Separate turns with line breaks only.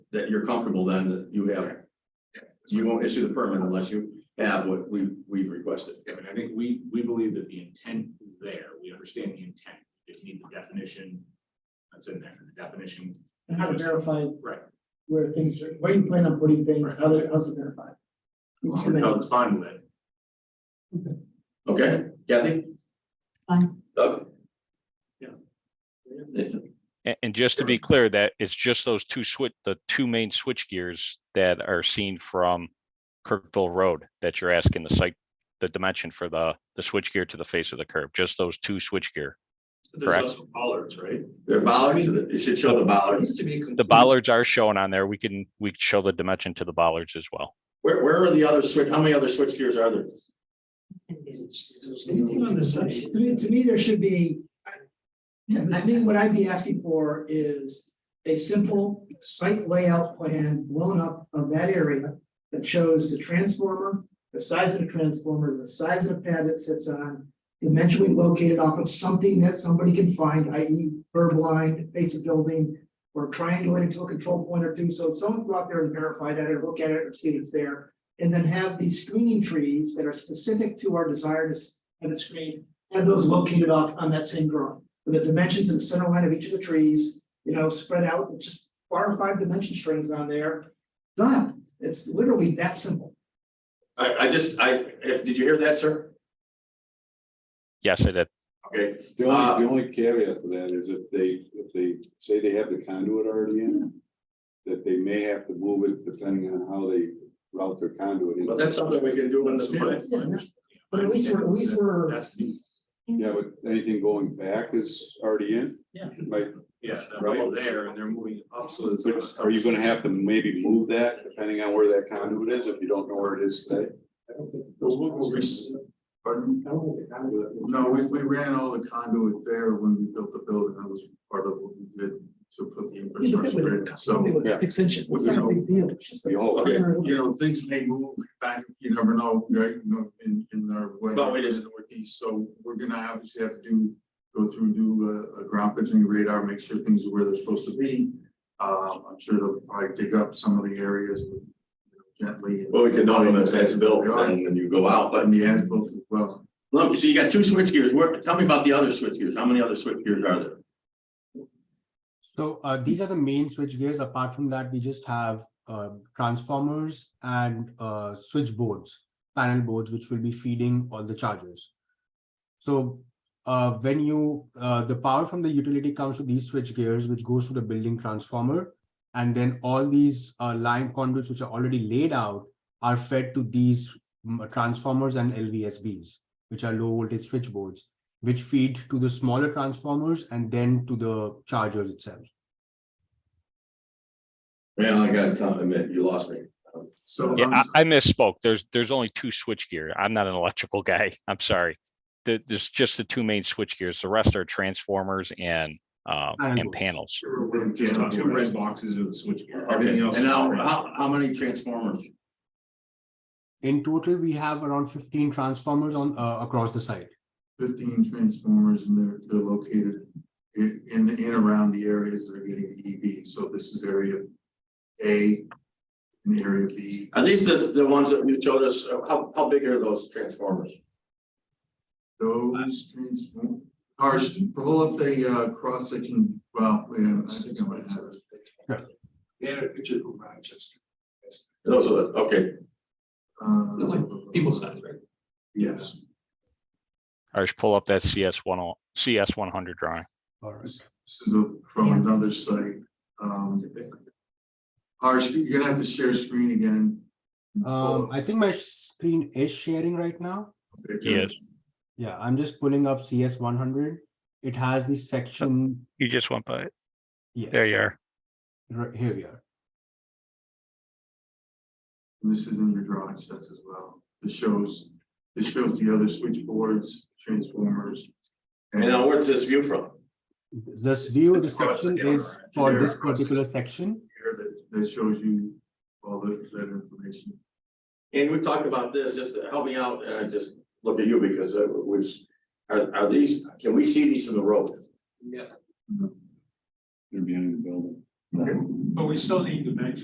that you're comfortable then that you have. You won't issue the permit unless you have what we, we've requested.
Yeah, but I think we, we believe that the intent is there, we understand the intent, We just need the definition. That's in there, the definition,
And how to verify
right,
where things are, where you plan on putting things, how they, how's it verified? It's gonna
how
help.
it's fine with it.
Okay, Kathy?
Fine.
Doug?
Yeah.
It's,
And, and just to be clear, that it's just those two switch, the two main switch gears that are seen from Kirkville Road that you're asking the site, the dimension for the, the switch gear to the face of the curb, just those two switch gear.
There's
Correct.
also bollards, right?
they're bollards, it should show the bollards.
The bollards are shown on there. We can, we can show the dimension to the bollards as well.
Where, where are the other switch, how many other switch gears are there?
Anything on the side, to me, to me, there should be. Yeah, I think what I'd be asking for is a simple site layout plan blown up of that area. That shows the transformer, the size of the transformer, the size of the pad it sits on. Dimensionally located off of something that somebody can find, i.e. curb line, face of building. Or triangulated to a control point or two, so if someone go out there and verify that or look at it and see it's there. And then have these screening trees that are specific to our desire to s- have it screened, have those located off on that same drawing. With the dimensions and center line of each of the trees, you know, spread out, with just four or five dimension strings on there. Done, it's literally that simple.
I, I just, I, if, did you hear that, sir?
Yes, it,
Okay,
The
Uh,
only, the only caveat to that is if they, if they say they have the conduit already in. That they may have to move it depending on how they route their conduit. in.
but that's something we can do in the future.
But at least we're, at least we're,
That's, the-
Yeah, but anything going back is already in.
Yeah.
Like,
yeah, they're all there and they're moving it up, so it's.
so are you gonna have to maybe move that depending on where that conduit is, if you don't know where it is today?
Pardon? No, we, we ran all the conduit there when we built the building. That was part of what we did to put the infrastructure in. So,
something with
Yeah.
extension, it's not a big deal, it's just.
The whole-
Okay.
you know, things may move back, you never know, right? You know, in, in our way.
But it is-
in the Northeast, so we're gonna obviously have to do, go through, do a, a ground pitching radar, make sure things are where they're supposed to be. Uh, I'm sure they'll probably dig up some of the areas you know, gently.
Well, we can know when it's as built, and then you go out, but
And the as-built as well.
Look, so you got two switch gears. Where, tell me about the other switch gears. How many other switch gears are there?
So uh, these are the main switch gears. Apart from that, we just have uh, transformers and uh, switch boards, panel boards, which will be feeding all the chargers. So uh, when you uh, the power from the utility comes to these switch gears, which goes to the building transformer, and then all these uh, line conduits, which are already laid out, are fed to these mm, transformers and LVSBs, which are low voltage switch boards which feed to the smaller transformers and then to the chargers itself.
Man, I gotta tell- admit, you lost me.
So.
yeah,
um,
I, I misspoke. There's, there's only two switch gear. I'm not an electrical guy. I'm sorry. There, there's just the two main switch gears. The rest are transformers and, um, and
Panels.
panels.
Just two red boxes are the switch gear.
Okay, and now, how, how many transformers?
In total, we have around 15 transformers on uh, across the site.
fifteen transformers and they're, they're located in, in the, in around the areas that are getting the EV. So this is area A and area B.
Are these the, the ones that you showed us? Uh, How, how big are those transformers?
Those transform, cars, pull up the, uh, cross section, well, wait, a minute, I think I might have it.
They had a picture from Rochester,
Those are, the- okay,
They're
Uh,
like people size, right?
Yes,
I just pull up that CS one, oh- CS one hundred drawing.
All right.
this this is a- from
Yeah.
another site. Um, Harsh, you're gonna have to share screen again.
Um, I think my screen is sharing right now.
Yes.
Yeah, I'm just pulling up CS100. It has the section.
You just went by it.
Yes.
are.
Right, here we are.
And this is in your drawing sets as well. This shows, this shows the other switchboards, transformers.
and now where's this view from?
This view, the
It's across the
section
counter,
is
right?
for
They're
this
across.
particular section.
Here that, that shows you all the, that information.
And we talked about this, just to help me out, and I just look at you because it was, are, are these, can we see these from the road?
Yeah,
They're behind the building.
but we still need dimensions.